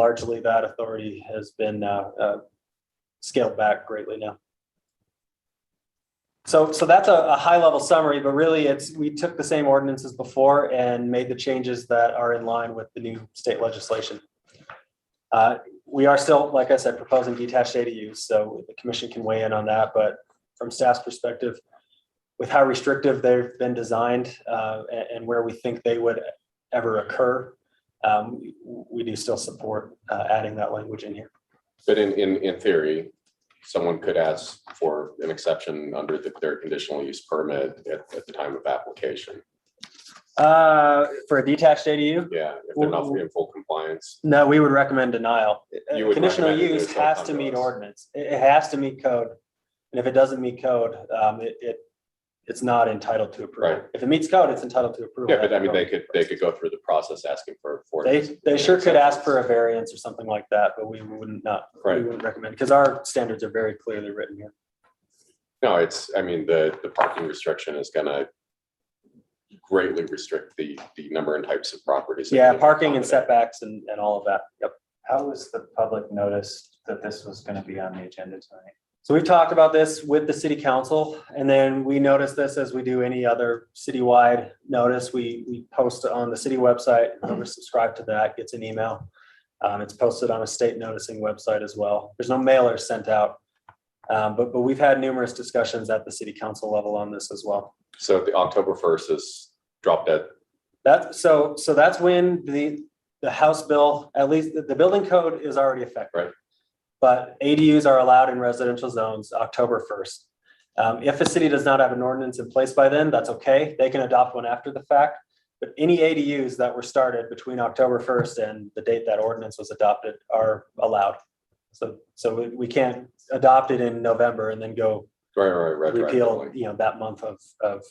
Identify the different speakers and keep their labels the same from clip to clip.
Speaker 1: largely that authority has been uh, uh, scaled back greatly now. So, so that's a, a high level summary, but really it's, we took the same ordinances before and made the changes that are in line with the new state legislation. Uh, We are still, like I said, proposing detached ADUs, so the commission can weigh in on that, but from staff's perspective, with how restrictive they've been designed uh, a- and, where we think they would ever occur, um, we- we do still support uh, adding that language in here.
Speaker 2: But in, in, in theory, someone could ask for an exception under the clear conditional use permit at, at the time of application.
Speaker 1: Uh, For a detached ADU,
Speaker 2: Yeah, if they're not in full compliance,
Speaker 1: no, we would recommend denial.
Speaker 2: You would
Speaker 1: Conditional
Speaker 2: recommend it,
Speaker 1: use
Speaker 2: it's not
Speaker 1: has
Speaker 2: come
Speaker 1: to
Speaker 2: to
Speaker 1: meet
Speaker 2: us.
Speaker 1: ordinance. It, it has to meet code. And if it doesn't meet code, um, it, it, it's not entitled to approval.
Speaker 2: Right.
Speaker 1: If it meets code, it's entitled to approval.
Speaker 2: yeah, but I mean, they could, they could go through the process asking for. for
Speaker 1: They, they sure could ask for a variance or something like that, but we wouldn't not we
Speaker 2: Right,
Speaker 1: wouldn't recommend, because our standards are very clearly written here.
Speaker 2: no, it's, I mean, the, the parking restriction is gonna greatly restrict the, the number and types of properties. that
Speaker 1: Yeah,
Speaker 2: can
Speaker 1: parking and
Speaker 2: accommodate.
Speaker 1: setbacks and, and all of that. Yep.
Speaker 3: How was the public notice that this was gonna be on the agenda tonight?
Speaker 1: So we've talked about this with the city council, and then we notice this as we do any other citywide notice. We, we post on the city website, whoever's subscribed to that gets an email. Um, it's posted on a state noticing website as well. There's no mailers sent out. Um, but, but we've had numerous discussions at the city council level on this as well.
Speaker 2: So the October first is drop dead.
Speaker 1: That, so, so that's when the, the House bill, at least the, the building code is already effective.
Speaker 2: Right.
Speaker 1: But ADUs are allowed in residential zones October first. Um, if a city does not have an ordinance in place by then, that's okay. They can adopt one after the fact. But any ADUs that were started between October first and the date that ordinance was adopted are allowed. So, so we, we can't adopt it in November and then go
Speaker 2: right, right, right.
Speaker 1: repeal, you know, that month of, of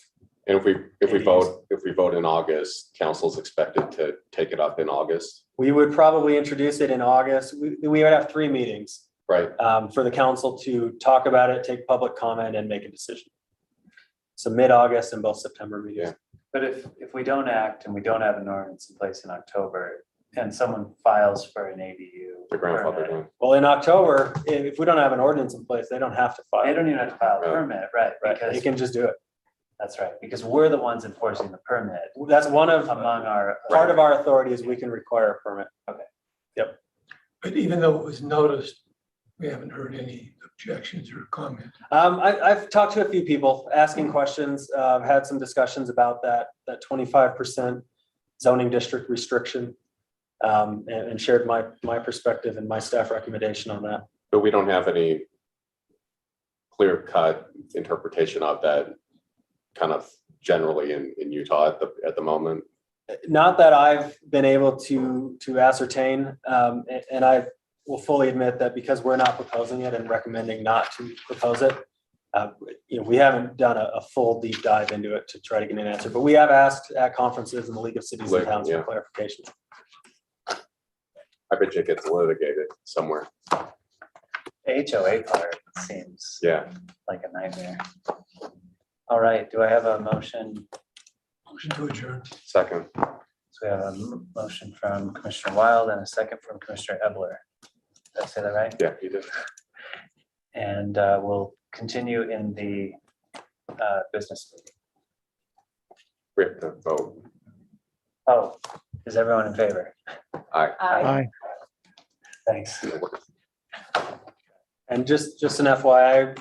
Speaker 2: And if we, if we
Speaker 1: ADUs.
Speaker 2: vote, if we vote in August, council's expected to take it up in August,
Speaker 1: We would probably introduce it in August. We, we would have three meetings
Speaker 2: right?
Speaker 1: um, for the council to talk about it, take public comment and make a decision. So mid-August and both September meetings.
Speaker 2: Yeah.
Speaker 3: But if, if we don't act and we don't have an ordinance in place in October, and someone files for an ADU.
Speaker 2: The grandfather one.
Speaker 1: Well, in October, if, if we don't have an ordinance in place, they don't have to
Speaker 3: They
Speaker 1: file.
Speaker 3: don't even have to file a
Speaker 2: Right.
Speaker 3: permit, right,
Speaker 1: Right, they
Speaker 3: because,
Speaker 1: can just do it.
Speaker 3: that's right, because we're the ones enforcing the permit
Speaker 1: That's one of,
Speaker 3: among our.
Speaker 1: part of our authority is we can require a permit.
Speaker 4: But even though it was noticed, we haven't heard any objections or comments.
Speaker 1: Um, I, I've talked to a few people asking questions, uh, I've had some discussions about that, that twenty-five percent zoning district restriction. Um, and, and shared my, my perspective and my staff recommendation on that.
Speaker 2: But we don't have any clear cut interpretation of that kind of generally in, in Utah at the, at the moment.
Speaker 1: Not that I've been able to, to ascertain, um, a- and, I will fully admit that because we're not proposing it and recommending not to propose it. Uh, you know, we haven't done a, a full deep dive into it to try to get an answer, but we have asked at conferences in the League of Cities and
Speaker 2: Like,
Speaker 1: Towns for
Speaker 2: yeah.
Speaker 1: clarification.
Speaker 2: I bet you it gets litigated somewhere.
Speaker 3: HOA part seems
Speaker 2: Yeah,
Speaker 3: like a nightmare. All right, do I have a motion
Speaker 4: Motion to adjourn.
Speaker 2: second.
Speaker 3: So we have a m- motion from Commissioner Wild and a second from Commissioner Ebler. Did I say that right?
Speaker 2: Yeah, you did.
Speaker 3: And uh, we'll continue in the uh, business. meeting.
Speaker 2: We have to vote.
Speaker 3: Oh, is everyone in favor?
Speaker 2: Aye.
Speaker 3: Aye. Thanks.
Speaker 1: And just, just an FYI,